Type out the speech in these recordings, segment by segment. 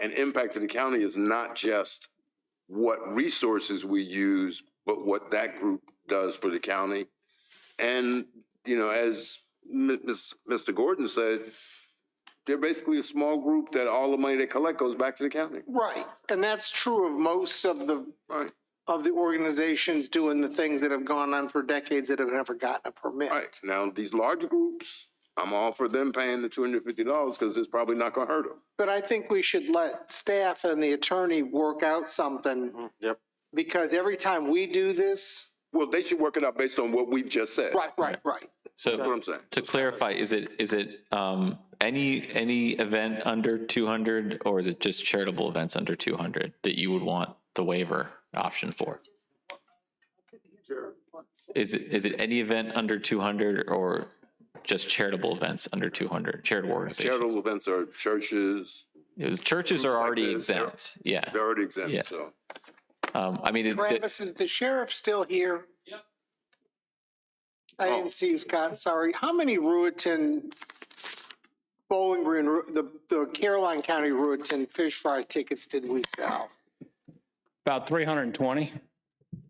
an impact to the county is not just what resources we use, but what that group does for the county. And, you know, as Mi- Ms- Mr. Gordon said, they're basically a small group that all the money they collect goes back to the county. Right, and that's true of most of the, Right. of the organizations doing the things that have gone on for decades that have never gotten a permit. Right. Now, these large groups, I'm all for them paying the two hundred and fifty dollars because it's probably not gonna hurt them. But I think we should let staff and the attorney work out something. yep. Because every time we do this, Well, they should work it out based on what we've just said. right, right, right. That's what So I'm saying. to clarify, is it, is it um, any, any event under 200 or is it just charitable events under 200 that you would want the waiver option for? Is it, is it any event under 200 or just charitable events under 200, charitable organizations? Charitable events are churches, Churches are like already this, they're- exempt, yeah. they're already Yeah. exempt, so. Um, I mean, it- it- Travis, is the sheriff still here? Yep. Oh. I didn't see you, Scott, sorry. How many Ruetan, Bowling Green, Ru- the, the Caroline County Ruetan fish fry tickets did we sell? About 320.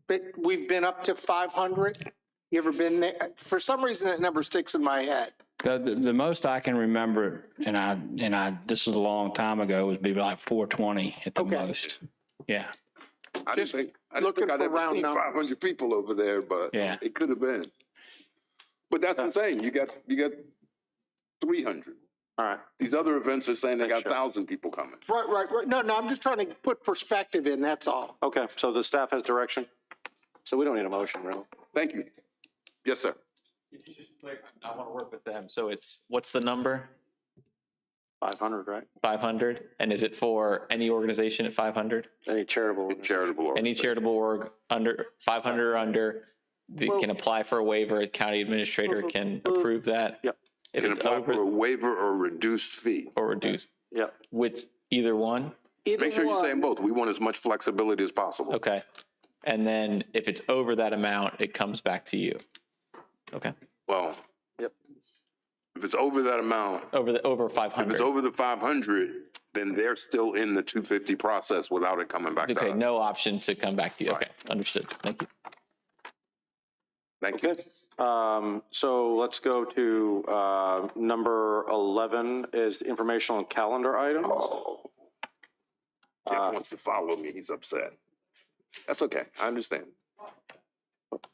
But we've been up to five hundred? You ever been there? For some reason, that number sticks in my head. The, the, the most I can remember, and I, and I, this is a long time ago, would be like 420 at the Okay. most. Yeah. I didn't Just think, I didn't looking think I'd for ever round seen numbers. five hundred people over there, but Yeah. it could have been. But that's insane. You got, you got three hundred. All right. These other events are saying they got Sure. thousand people coming. Right, right, right. No, no, I'm just trying to put perspective in, that's all. Okay, so the staff has direction? So we don't need a motion, really? Thank you. Yes, sir. I want to work with them. So it's, what's the number? 500, right? 500? And is it for any organization at 500? Any charitable? Charitable. Any charitable org under five hundred or under that Well- can apply for a waiver, county administrator can approve that. Yep. If Can it's apply for a over waiver or reduced fee. or reduced Yep. with either one, Make sure you say them both. We want as much flexibility as possible. okay. And then if it's over that amount, it comes back to you. Okay, Well. Yep. If it's over that amount, over the, over five if hundred. it's over the five hundred, then they're still in the two fifty process without it coming back to Okay, us. no option to come back to you. Right. Okay, understood. Thank you. Thank you. Okay. Um, so let's go to, uh, number 11 is the informational calendar items. Oh. Jeff Uh, wants to follow me. He's upset. That's okay. I understand.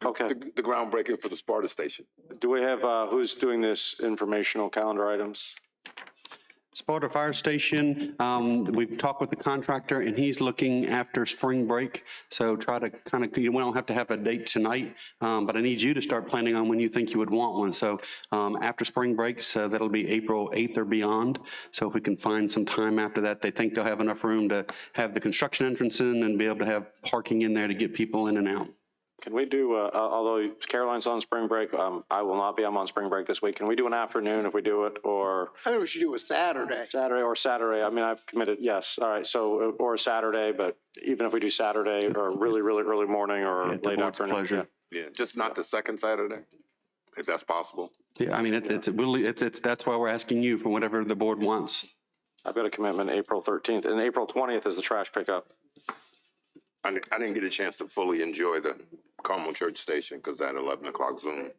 Okay, The, the groundbreaking for the Sparta station. do we have, uh, who's doing this informational calendar items? Sparta Fire Station, um, we've talked with the contractor and he's looking after spring break. So try to kind of, you, we don't have to have a date tonight, um, but I need you to start planning on when you think you would want one. So, um, after spring break, so that'll be April 8th or beyond. So if we can find some time after that, they think they'll have enough room to have the construction entrance in and be able to have parking in there to get people in and out. Can we do, uh, al- although Caroline's on spring break, um, I will not be, I'm on spring break this week. Can we do an afternoon if we do it or I think we should do a Saturday. Saturday or Saturday? I mean, I've committed, yes, all right, so, uh, or Saturday, but even if we do Saturday or really, really early morning or At the late board's afternoon. pleasure. yeah. Yeah, just not the second Saturday, if that's possible. Yeah, I mean, it's, it's, we'll- it's, it's, that's why we're asking you for whatever the board wants. I've got a commitment April 13th and April 20th is the trash pickup. I, di- I didn't get a chance to fully enjoy the Carmel Church Station because that eleven o'clock Zoom.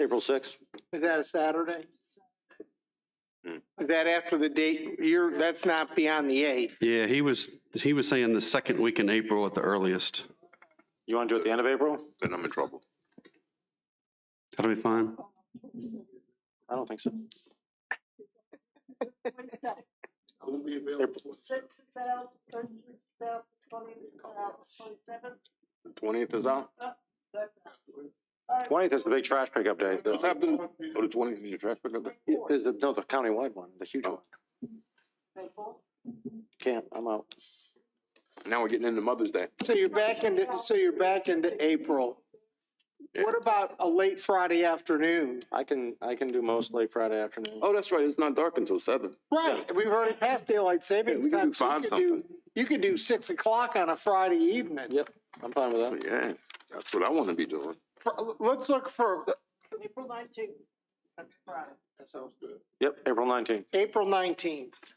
April 6th? Is that a Saturday? Hmm. Is that after the date, you're, that's not beyond the eighth? Yeah, he was, he was saying the second week in April at the earliest. You want to do it at the end of April? Then I'm in trouble. That'll be fine. I don't think so. Six is out, twenty is out, twenty is out, twenty-seven. Twentieth is out. Twentieth is the big trash pickup day. What's The- happening? Oh, the twentieth is your trash pickup day? Is the, no, the countywide one, the huge one. Can't, I'm out. Now we're getting into Mother's Day. So you're back into, so you're back into April. What about a late Friday afternoon? I can, I can do most late Friday afternoon. Oh, that's right. It's not dark until seven. Right, we've already passed daylight savings we can do time. so you five could do- You could do six o'clock on a Friday evening. Yep, I'm fine with that. Yes, that's what I want to be doing. Fr- Let's look for April nineteenth, that's Friday. Yep, April nineteenth. April nineteenth.